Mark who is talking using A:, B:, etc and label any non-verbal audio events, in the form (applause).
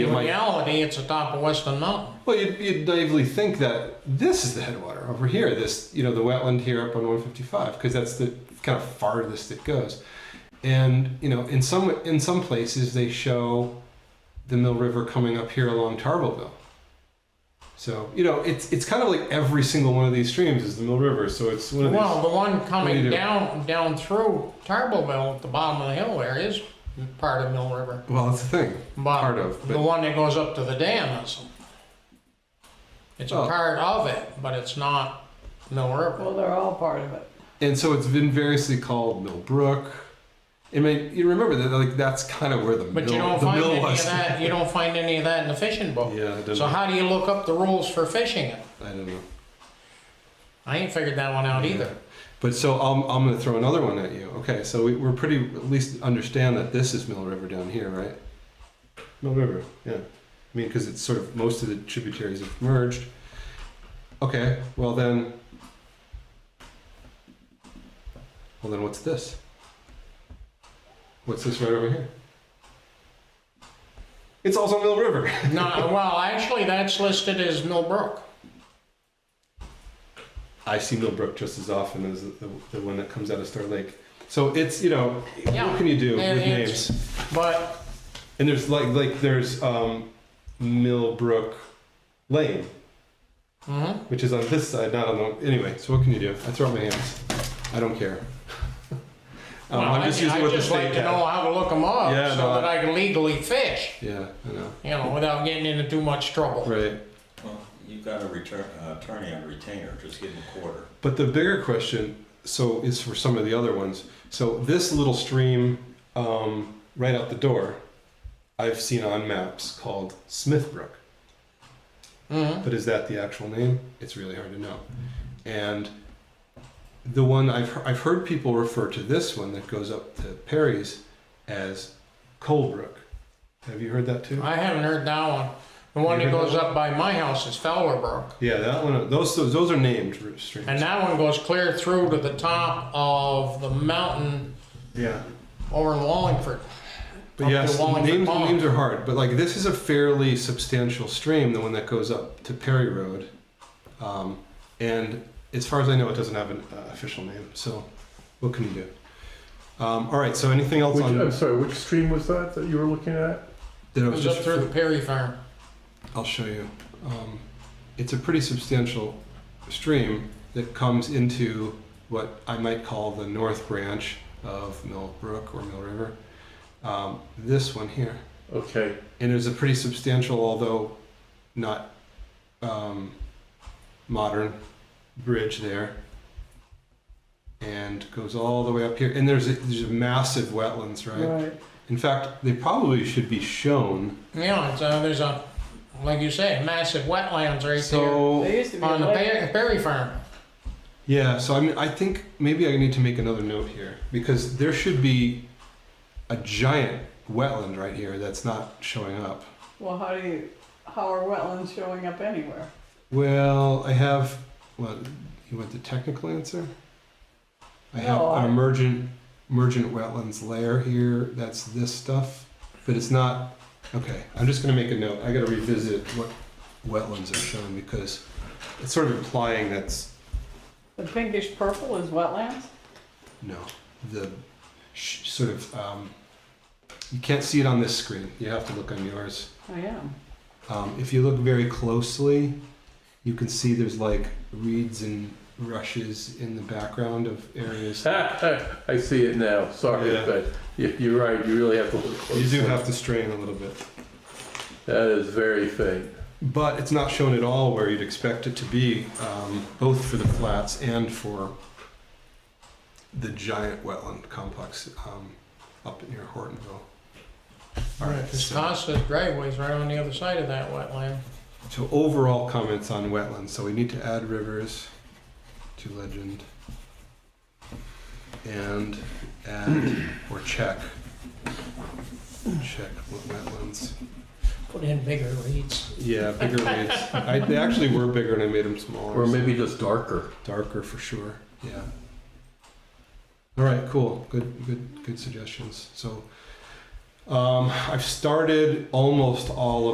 A: you
B: in
A: might-
B: reality, it's atop of Western Mountain.
A: Well, you'd, you'd naively think that this is the headwater over here, this, you know, the wetland here up on 155, because that's the kind of farthest it goes. And, you know, in some, in some places they show the Mill River coming up here along Tarbleville. So, you know, it's, it's kind of like every single one of these streams is the Mill River. So it's one of these.
B: Well, the one
A: do
B: coming
A: you do?
B: down, down through Tarbleville at the bottom of the hill there is part of Mill River.
A: Well, that's the thing.
B: But
A: Part of,
B: The
A: but-
B: one that goes up to the dam is, it's a
A: Oh.
B: part of it, but it's not Mill River.
C: Well, they're all part of it.
A: And so it's been variously called Mill Brook. I mean, you remember that, like, that's kind of where the
B: But
A: mill,
B: you don't
A: the
B: find
A: mill
B: any of
A: was.
B: that, you don't find any of that in the fishing book.
A: Yeah, it doesn't-
B: So how do you look up the rules for fishing it?
A: I don't know.
B: I ain't figured that one
A: (laughs)
B: out either.
A: But so I'm, I'm going to throw another one at you. Okay, so we, we're pretty, at least understand that this is Mill River down here, right? Mill River, yeah. I mean, because it's sort of, most of the tributaries have merged. Okay, well then. Well then, what's this? What's this right over here? It's also Mill River.
B: No, well, actually, that's listed as Mill Brook.
A: I see Millbrook just as often as the, the one that comes out of Star Lake. So it's you know
B: Yeah.
A: what can you do
B: And
A: with
B: it's-
A: names?
B: But,
A: And there's like like there's um, Millbrook Lane,
B: mhm.
A: which is on this side, not on the anyway. So what can you do? I throw up my hands. I don't care. (laughs) um,
B: Well,
A: I'm just
B: I-
A: using
B: I
A: what the
B: just
A: state
B: like to know
A: had.
B: how to look them up
A: Yeah,
B: so
A: no,
B: that I can legally fish,
A: Yeah, I know.
B: you know, without getting into too much trouble.
A: Right.
D: Well, you've got a return, uh, attorney on retainer, just give him a quarter.
A: But the bigger question, so is for some of the other ones. So this little stream um, right out the door, I've seen on maps called Smithbrook.
B: Mhm.
A: But is that the actual name? It's really hard to know. And the one I've I've heard people refer to this one that goes up to Perry's as Colebrook. Have you heard that too?
B: I haven't heard that one. The one
A: You
B: that
A: heard
B: goes
A: that
B: up by my house is Fowler Brook.
A: Yeah, that one. Those those, those are named streams.
B: And that one goes clear through to the top of the mountain
A: yeah.
B: over in Wallingford.
A: But
B: Up to
A: yes,
B: Wallingford
A: names,
B: Pond.
A: names are hard. But like this is a fairly substantial stream, the one that goes up to Perry Road, um, and as far as I know, it doesn't have an uh, official name. So, what can you do? Um, all right. So, anything else
E: Which,
A: on
E: I'm sorry, which stream was that that you were looking at?
A: that I
B: It
A: was
B: goes up
A: just?
B: through the Perry Farm.
A: I'll show you. Um, it's a pretty substantial stream that comes into what I might call the north branch of Mill Brook or Mill River. Um, this one here.
E: Okay,
A: and it was a pretty substantial, although not um, modern, bridge there, and goes all the way up here. And there's a, there's a massive wetlands, right?
C: Right.
A: In fact, they probably should be shown.
B: Yeah, it's, uh, there's a, like you say, massive wetlands right
A: so
C: There used to be
B: there
C: a
B: on the
C: lake.
B: Pe- Perry Farm.
A: yeah, so I mean, I think maybe I need to make another note here because there should be a giant wetland right here that's not showing up.
C: Well, how do you, how are wetlands showing up anywhere?
A: Well, I have. Well, you want the technical answer? I have
C: No, I-
A: an emergent, emergent wetlands layer here. That's this stuff, but it's not. Okay, I'm just gonna make a note. I gotta revisit what wetlands are shown because it's sort of implying that's
C: The pinkish purple is wetlands?
A: no the sh- sort of. Um, you can't see it on this screen. You have to look on yours.
C: I am.
A: Um, if you look very closely, you can see there's like reeds and rushes in the background of
E: (laughs)
A: areas.
E: (laughs) Ah. I see it now. Sorry,
A: Yeah.
E: but you- you're right. You really have to look.
A: You
E: Closely.
A: do have to strain a little bit,
E: That is very faint.
A: but it's not shown at all where you'd expect it to be, um, both for the flats and for the giant wetland complex um, up near Hortonville. All right.
B: This
A: So,
B: Costa's driveway's right on the other side of that wetland.
A: so overall comments on wetlands. So we need to add rivers to legend and add or check check wetlands.
B: Put in bigger reeds.
A: Yeah, bigger leaves. I, they actually were bigger, and I made them smaller.
E: Or maybe just darker.
A: darker for sure. Yeah. All right, cool. Good, good, good suggestions. So, um, I've started almost all of.